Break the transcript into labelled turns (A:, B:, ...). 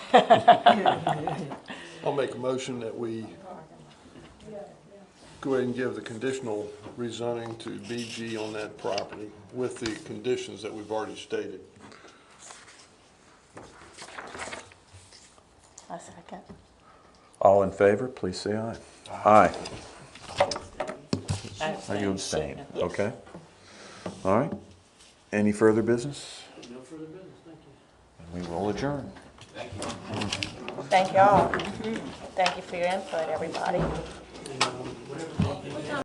A: I'll make a motion that we go ahead and give the conditional rezoning to BG on that property with the conditions that we've already stated.
B: A second.
C: All in favor, please say aye. Aye. Are you abstaining? Okay. All right. Any further business? No further business, thank you. And we will adjourn.
B: Thank y'all. Thank you for your input, everybody.